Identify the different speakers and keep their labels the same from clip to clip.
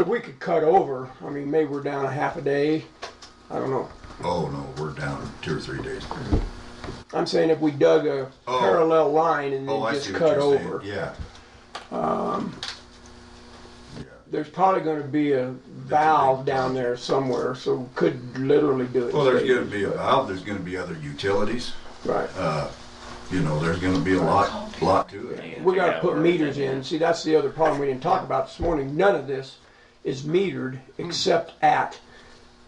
Speaker 1: If we could cut over, I mean, maybe we're down a half a day. I don't know.
Speaker 2: Oh, no, we're down two or three days.
Speaker 1: I'm saying if we dug a
Speaker 2: Oh.
Speaker 1: parallel line and
Speaker 2: Oh,
Speaker 1: then
Speaker 2: I
Speaker 1: just
Speaker 2: see what
Speaker 1: cut
Speaker 2: you're saying.
Speaker 1: over.
Speaker 2: Yeah. Yeah.
Speaker 1: There's probably gonna be a valve down there somewhere, so we could literally do it.
Speaker 2: Well, there's
Speaker 1: today.
Speaker 2: gonna be a valve, there's gonna be other utilities,
Speaker 1: Right.
Speaker 2: you know, there's gonna be a lot, lot to it.
Speaker 1: We gotta put meters in. See, that's the other problem we didn't talk about this morning. None of this is metered except at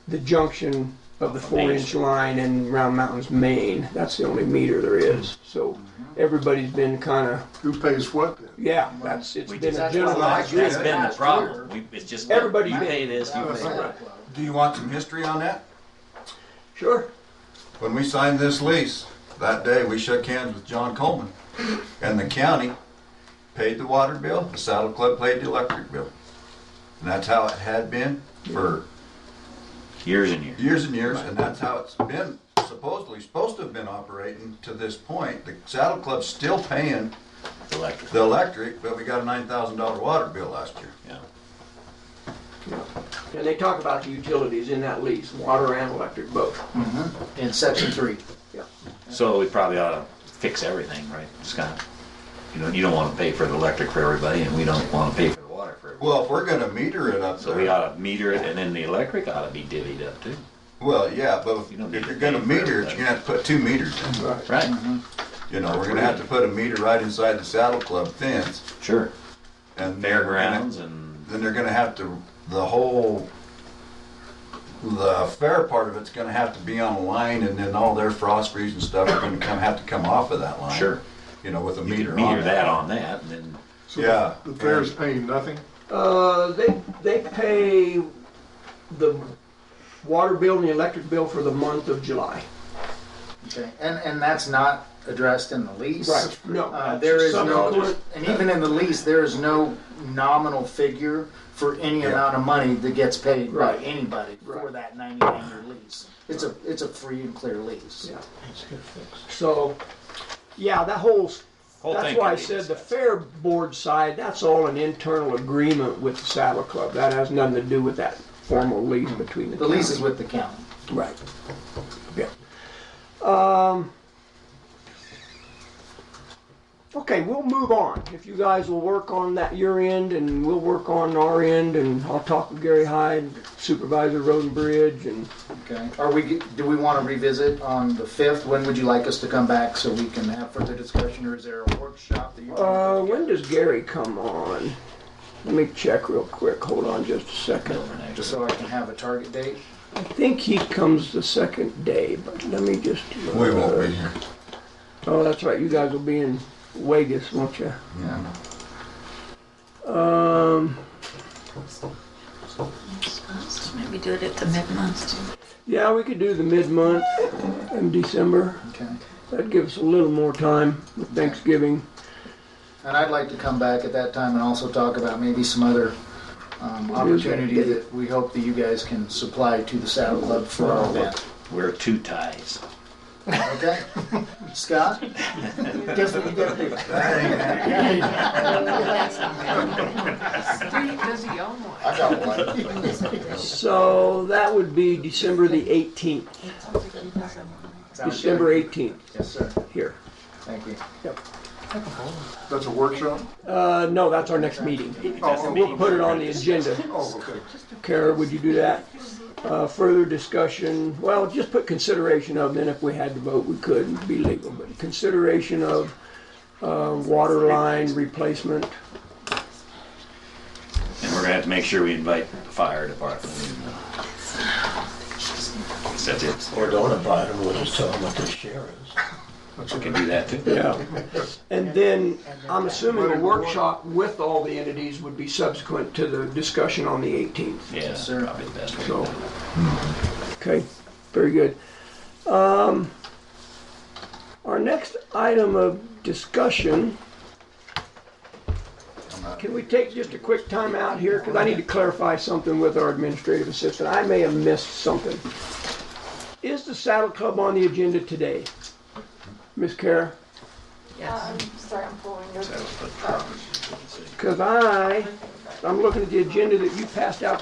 Speaker 1: the junction of the four inch line in Round Mountains, Maine. That's the only meter there is. So everybody's been kinda,
Speaker 3: Who pays what then?
Speaker 1: yeah, that's, it's
Speaker 4: We
Speaker 1: been a
Speaker 4: just-
Speaker 1: general.
Speaker 2: Well, I agree.
Speaker 4: That's been the problem. We, it's just, you
Speaker 1: Everybody's been-
Speaker 4: pay this, you pay that.
Speaker 2: Do you want some history on that?
Speaker 1: Sure.
Speaker 2: When we signed this lease, that day, we shook hands with John Coleman, and the county paid the water bill, the Saddle Club paid the electric bill. And that's how it had been for
Speaker 4: Years and years.
Speaker 2: years and years, and that's how it's been supposedly, supposed to have been operating to this point. The Saddle Club's still paying
Speaker 4: Electric.
Speaker 2: the electric, but we got a nine thousand dollar water bill last year.
Speaker 4: Yeah.
Speaker 1: And they talk about the utilities in that lease, water and electric both.
Speaker 5: in section three.
Speaker 4: So we probably ought to fix everything, right, Scott? You know, you don't want to pay for the electric for everybody, and we don't want to pay for the water for everybody.
Speaker 2: Well, if we're gonna meter it up
Speaker 4: So we
Speaker 2: there,
Speaker 4: ought to meter it, and then the electric ought to be divvied up too.
Speaker 2: well, yeah, but
Speaker 4: You don't
Speaker 2: if you're
Speaker 4: need to
Speaker 2: gonna
Speaker 4: pay for
Speaker 2: meter it, you're
Speaker 4: everything.
Speaker 2: gonna have to put two meters in.
Speaker 4: Right.
Speaker 2: You know, we're gonna have to put a meter right inside the Saddle Club fence
Speaker 4: Sure.
Speaker 2: and. they're gonna-
Speaker 4: Fairgrounds and
Speaker 2: Then they're gonna have to, the whole, the fair part of it's gonna have to be on line and then all their frost trees and stuff are gonna come, have to come off of that line.
Speaker 4: Sure.
Speaker 2: You know, with a
Speaker 4: you
Speaker 2: meter
Speaker 4: can
Speaker 2: on.
Speaker 4: meter
Speaker 2: it.
Speaker 4: that on that, and then
Speaker 3: So
Speaker 2: Yeah.
Speaker 3: The fair is paying nothing?
Speaker 1: Uh, they, they pay the water bill and the electric bill for the month of July.
Speaker 5: Okay, and, and that's not addressed in the lease. Uh,
Speaker 1: No.
Speaker 5: there is no,
Speaker 1: Subsequent-
Speaker 5: and even in the lease, there is no nominal figure for any amount of money that gets paid by
Speaker 1: Right.
Speaker 5: anybody for
Speaker 1: Right.
Speaker 5: that ninety-nine year lease. It's a, it's a free and clear lease.
Speaker 1: Yeah. So, yeah, that whole, s-
Speaker 4: Whole
Speaker 1: that's
Speaker 4: thing
Speaker 1: why
Speaker 4: can
Speaker 1: I
Speaker 4: be
Speaker 1: said the
Speaker 4: discussed.
Speaker 1: fair board side, that's all an internal agreement with the Saddle Club. That has nothing to do with that formal lease between the
Speaker 5: The lease
Speaker 1: towns.
Speaker 5: is with the county.
Speaker 1: Right. Yeah. Um, okay, we'll move on. If you guys will work on that your end and we'll work on our end and I'll talk with Gary Hyde, Supervisor Road and Bridge and
Speaker 5: Okay, are we, g- do we want to revisit on the fifth? When would you like us to come back so we can have further discussion, or is there a workshop that you?
Speaker 1: uh,
Speaker 5: want to
Speaker 1: when does Gary come on? Let me check real quick. Hold on just a second.
Speaker 4: over next.
Speaker 5: Just so I can have a target date?
Speaker 1: I think he comes the second day, but let me just. uh,
Speaker 2: We won't be here.
Speaker 1: Oh, that's right. You guys will be in Vegas, won't you?
Speaker 5: Yeah.
Speaker 1: Um,
Speaker 6: Maybe do it at the mid-month.
Speaker 1: yeah, we could do the mid-month in December.
Speaker 5: Okay.
Speaker 1: That'd give us a little more time with Thanksgiving.
Speaker 5: And I'd like to come back at that time and also talk about maybe some other um, opportunity that we hope that you guys can supply to the Saddle Club for our event.
Speaker 4: Wear two ties.
Speaker 5: Okay? Scott? Guess what you gotta do?
Speaker 6: Does he own one?
Speaker 5: I got one.
Speaker 1: So that would be December the 18th,
Speaker 5: Sounds good?
Speaker 1: December 18th
Speaker 5: Yes, sir.
Speaker 1: here.
Speaker 5: Thank you.
Speaker 3: That's a workshop?
Speaker 1: Uh, no, that's our next meeting. We'll put it on the agenda.
Speaker 3: Oh, okay.
Speaker 1: Kara, would you do that? Uh, further discussion, well, just put consideration of, then if we had to vote, we could, it'd be legal, but consideration of, uh, water line replacement.
Speaker 4: And we're gonna have to make sure we invite the fire department. That's it.
Speaker 7: Or don't invite them, we'll just tell them what the share is.
Speaker 4: We can do that too.
Speaker 1: Yeah. And then, I'm assuming a workshop with all the entities would be subsequent to the discussion on the 18th.
Speaker 4: Yeah, that's
Speaker 5: sir.
Speaker 4: probably the best way. to
Speaker 1: So,
Speaker 4: do it.
Speaker 1: okay, very good. Um, Our next item of discussion, can we take just a quick time out here? Because I need to clarify something with our administrative assistant. I may have missed something. Is the Saddle Club on the agenda today? Ms. Kara?
Speaker 6: Yes.
Speaker 8: I'm sorry, I'm pulling your
Speaker 1: Because I I'm looking at the agenda that you passed out